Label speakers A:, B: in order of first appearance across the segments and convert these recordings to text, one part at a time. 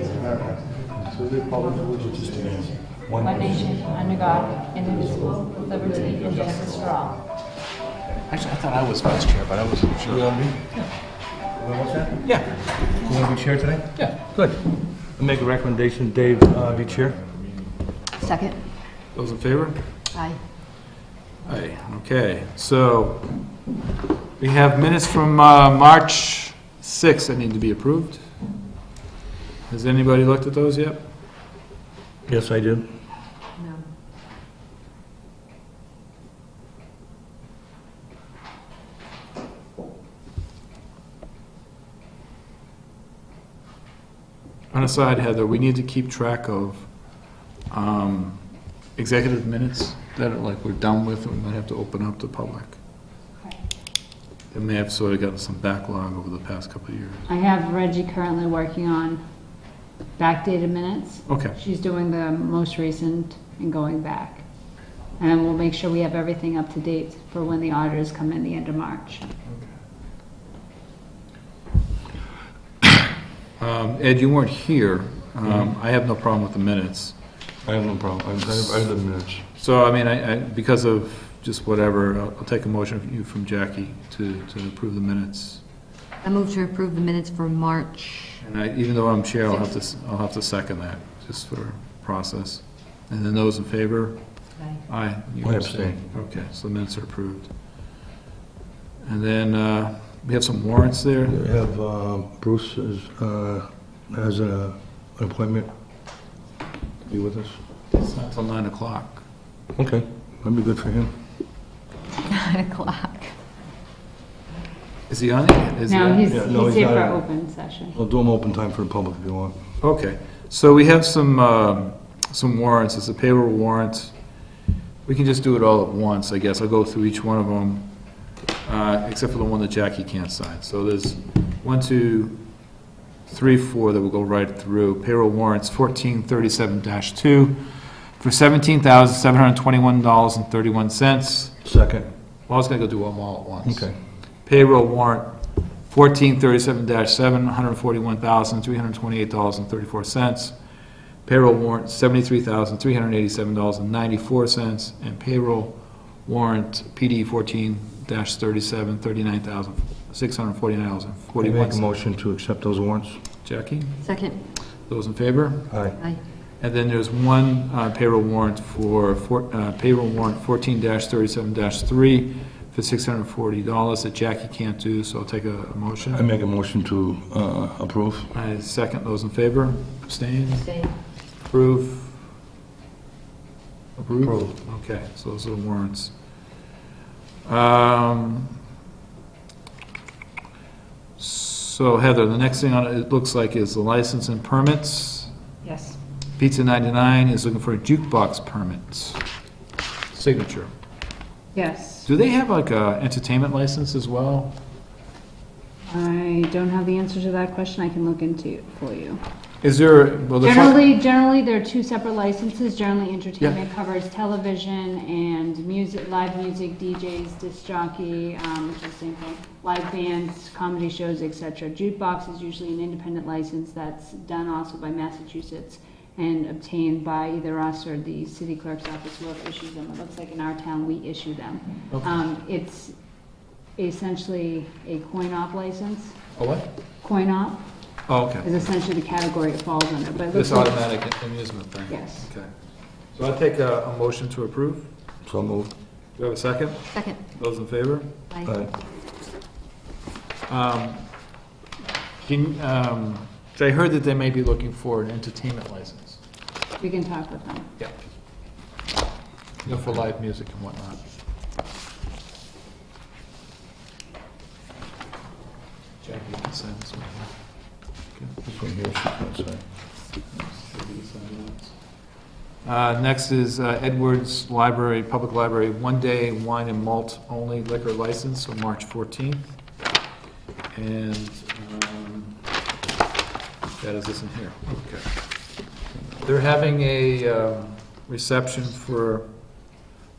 A: America through the republic for which it stands, one
B: one
A: nation.
B: nation, under God, indivisible, with liberty and justice for all.
C: Actually, I thought I was vice chair, but I wasn't
A: You
C: sure.
A: want me? Well, what's that?
C: Yeah,
A: You want to be chair today?
C: yeah.
A: Good. I make a recommendation, Dave, uh, be chair.
D: Second?
C: Those in favor?
D: Aye.
C: Aye, okay. So we have minutes from uh, March 6th that need to be approved. Has anybody looked at those yet?
A: Yes, I do.
D: No.
C: On a side, Heather, we need to keep track of um, executive minutes that are like we're done with and we might have to open up to public. They may have sort of gotten some backlog over the past couple of years.
B: I have Reggie currently working on backdated minutes.
C: Okay,
B: She's doing the most recent and going back. And we'll make sure we have everything up to date for when the auditors come in the end of March.
C: Um, Ed, you weren't here. Um, I have no problem with the minutes.
A: Mm-hmm. I have no problem. I have, I have the minutes.
C: So, I mean, I, I, because of just whatever, I'll, I'll take a motion from you, from Jackie, to, to approve the minutes.
D: I move to approve the minutes for March.
C: And I, even though I'm chair, I'll have to, s- I'll have to second that, just for process. And then those in favor?
D: Aye.
C: Aye. you
A: I abstain.
C: Okay, so the minutes are approved. And then, uh, we have some warrants there.
E: We have uh, Bruce as, uh, has a- an appointment. Be with us.
C: It's not till nine o'clock.
A: Okay.
E: That'd be good for him.
D: Nine o'clock.
C: Is he on? it? Is he
B: Now,
C: on?
B: he's,
E: Yeah, no, he's
B: he's here for
E: not.
B: open session.
E: I'll do them open time for the public if you want.
C: Okay, so we have some, um, some warrants, it's a payroll warrant. We can just do it all at once, I guess, I'll go through each one of them, uh, except for the one that Jackie can't sign. So there's one, two, three, four that will go right through. Payroll warrants fourteen thirty-seven two for seventeen thousand seven hundred twenty-one dollars and thirty-one cents.
E: Second.
C: Well, I was gonna go do them all at once.
E: Okay.
C: Payroll warrant fourteen thirty-seven dash seven, one hundred forty-one thousand, three hundred twenty-eight dollars and thirty-four cents. Payroll warrant seventy-three thousand, three hundred eighty-seven dollars and ninety-four cents. And payroll warrant PD fourteen dash thirty-seven, thirty-nine thousand, six hundred forty-nine dollars and
E: We
C: forty-one
E: Make a
C: cents.
E: motion to accept those warrants.
C: Jackie,
D: Second?
C: those in favor?
E: Aye.
D: Aye.
C: And then there's one uh, payroll warrant for, for- uh, payroll warrant fourteen thirty-seven three for six hundred forty dollars that Jackie can't do, so I'll take a a motion.
E: I make a motion to uh, approve.
C: I second those in favor. Abstain?
D: Abstain.
C: Approve? Approve.
E: Approve.
C: Okay, so those are the warrants. Um, So Heather, the next thing on it, it looks like is the license and permits.
B: Yes.
C: Pizza 99 is looking for a jukebox permit. Signature.
B: Yes.
C: Do they have like a entertainment license as well?
B: I don't have the answer to that question. I can look into it for you.
C: Is there, well, the...
B: Generally, generally, there are two separate licenses. Generally, entertainment covers television and music, live music, DJs, disc jockey, um, which is the same thing, live bands, comedy shows, etc. Jukebox is usually an independent license that's done also by Massachusetts and obtained by either us or the city clerk's office, whoever issues them. It looks like in our town, we issue them.
C: Okay.
B: Um, it's essentially a coin-op license.
C: A Oh, what?
B: Coin-op
C: Oh, okay.
B: is essentially the category it falls under, but it looks
C: This
B: like-
C: automatic amusement thing?
B: Yes.
C: Okay. So I take a, a motion to approve. Do
E: So moved.
C: we have a second?
D: Second?
C: Those in favor?
D: Aye.
E: Aye.
C: Um, Can, um, so I heard that they may be looking for an entertainment license.
B: We can talk with them.
C: Yeah. You know, for live music and whatnot. Jackie, you can sign this one here.
E: This one here, that's aye.
C: Uh, Next is uh, Edwards Library, Public Library, one-day wine and malt only liquor license on March 14th. And um, that is this in here. Okay. They're having a um, reception for,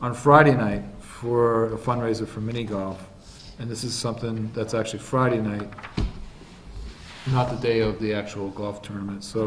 C: on Friday night, for a fundraiser for mini golf. And this is something that's actually Friday night, not the day of the actual golf tournament. So